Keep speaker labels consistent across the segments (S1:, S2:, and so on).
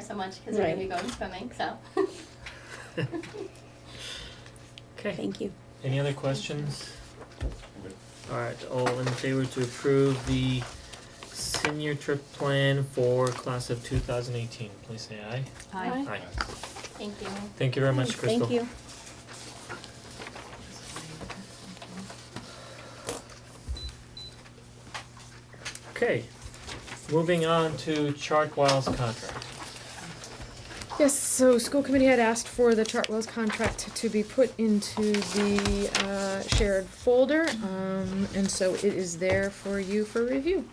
S1: so much because we're going to be
S2: Right.
S1: going swimming, so.
S3: Okay,
S2: Thank you.
S3: any other questions?
S4: Good.
S3: Alright, all in favor to approve the senior trip plan for class of two thousand eighteen, please say aye.
S1: Hi.
S3: Aye.
S1: Thank you.
S3: Thank you very much, Crystal.
S2: Thank you.
S3: Okay, moving on to Chartwell's contract.
S5: Yes, so school committee had asked for the Chartwell's contract to be put into the uh, shared folder, um, and so it is there for you for review.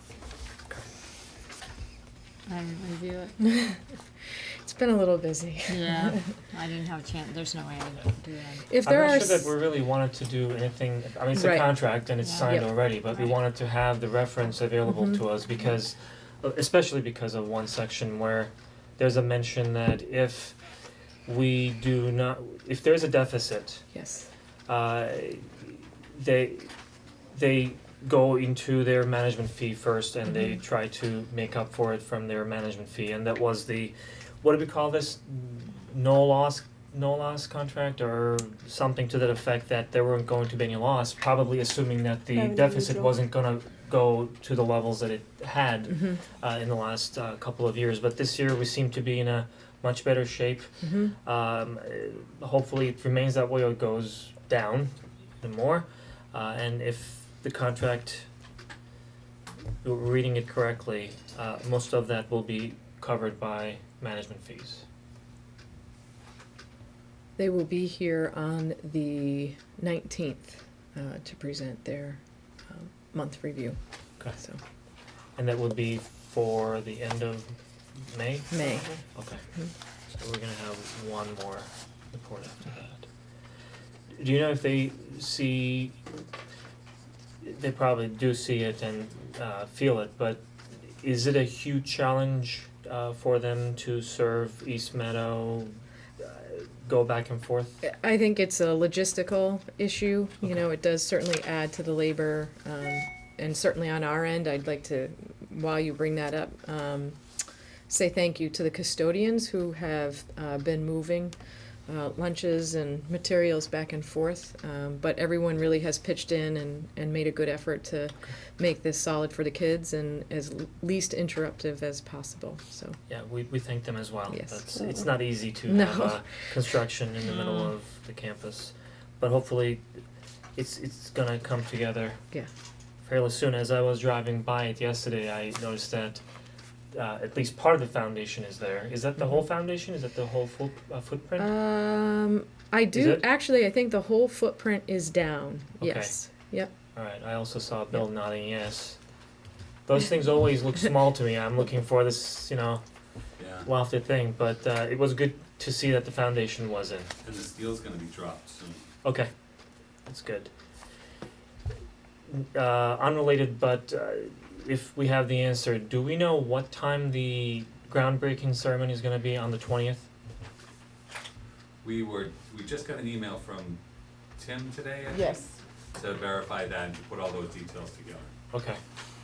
S6: I didn't review it.
S5: It's been a little busy.
S6: Yeah, I didn't have a chance. There's no way I could do that.
S5: If there are,
S3: I'm not sure
S5: s-
S3: that we really wanted to do anything, I mean, it's a
S5: Right.
S3: contract and it's
S6: Yeah.
S3: signed
S5: Yep.
S3: already, but we
S6: Right.
S3: wanted to have the reference available
S5: Mhm.
S3: to us because uh, especially because of one section where there's a mention that if we do not, if there's a deficit,
S5: yes,
S3: uh, they they go into their management fee first and they try to make up for it from their management fee and that was the what do we call this no loss no loss contract or something to that effect that there weren't going to be any loss probably assuming that the
S2: Revenue
S3: deficit
S2: neutral.
S3: wasn't gonna go to the levels that it had
S5: Mhm.
S3: uh in the last uh couple of years but this year we seem to be in a much better shape
S5: Mhm.
S3: um, uh, hopefully it remains that way or it goes down the more. Uh, and if the contract, we're reading it correctly, uh, most of that will be covered by management fees.
S5: they will be here on the nineteenth uh, to present their um, month review.
S3: Okay.
S5: So
S3: And that would be for the end of May?
S5: May.
S3: Okay.
S5: Mhm.
S3: So we're gonna have one more report after that. Do you know if they see, they probably do see it and uh feel it, but is it a huge challenge uh for them to serve East Meadow, uh, go back and forth?
S5: I think it's a logistical issue, you know,
S3: Okay.
S5: it does certainly add to the labor, um, and certainly on our end, I'd like to, while you bring that up, um, say thank you to the custodians who have, uh, been moving, uh, lunches and materials back and forth, um, but everyone really has pitched in and, and made a good effort to make this solid for the kids and as l- least interruptive as possible, so,
S3: Yeah, we we thank them as well.
S5: Yes.
S3: That's, it's not easy to
S5: No. Mm.
S3: have uh, construction in the middle
S5: No.
S3: of the campus, but hopefully it's it's gonna come together.
S5: Yeah.
S3: Fairly soon, as I was driving by it yesterday, I noticed that uh at least part of the foundation is there. Is that the
S5: Mm-hmm.
S3: whole foundation? Is that the whole full uh footprint?
S5: um, I do,
S3: it?
S5: actually, I think the whole footprint is down,
S3: Okay.
S5: yes, yep.
S3: Alright, I also saw Bill nodding yes. Those things always look small to me. I'm looking for this, you know,
S4: Yeah,
S3: lofted thing, but uh it was good to see that the foundation was in.
S4: and this deal's gonna be dropped soon.
S3: Okay, that's good. Uh, unrelated, but uh, if we have the answer, do we know what time the groundbreaking ceremony is going to be on the twentieth?
S4: We were, we just got an email from Tim today, I think, to verify that and to put all those details together,
S3: Okay,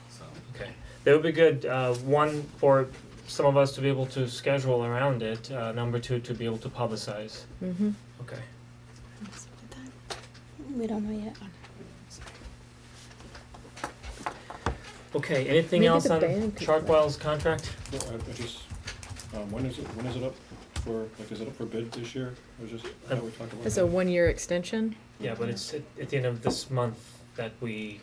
S4: so.
S3: okay. That would be good. Uh, one for some of us to be able to schedule around it. Uh, number two to be able to publicize.
S5: Mm-hmm.
S3: Okay.
S2: We don't know yet.
S3: Okay. Anything
S5: Maybe
S3: else
S5: the
S3: on
S5: band could-
S3: Chartwell's contract?
S7: No, I, I just, um, when is it, when is it up for, like, is it up for bid this year? I was just, I thought we talked about
S5: It's
S7: that.
S5: a one-year extension.
S3: Yeah, but it's at, at the end of this month that we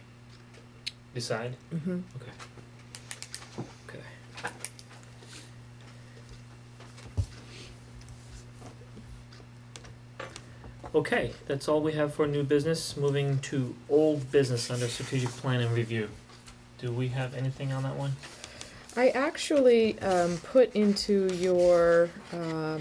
S3: decide.
S5: Mm-hmm.
S3: Okay. Okay. Okay, that's all we have for new business. Moving to old business under strategic plan and review. Do we have anything on that one?
S5: I actually um, put into your um,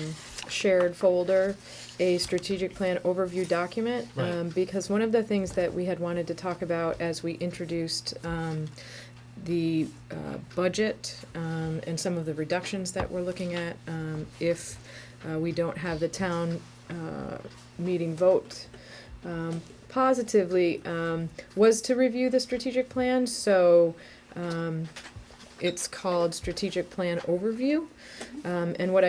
S5: shared folder a strategic plan overview document
S3: Right.
S5: um, because one of the things that we had wanted to talk about as we introduced um, the uh, budget um, and some of the reductions that we're looking at um, if uh, we don't have the town uh, meeting vote um, positively um, was to review the strategic plan. So um, it's called Strategic Plan Overview. Um, and what I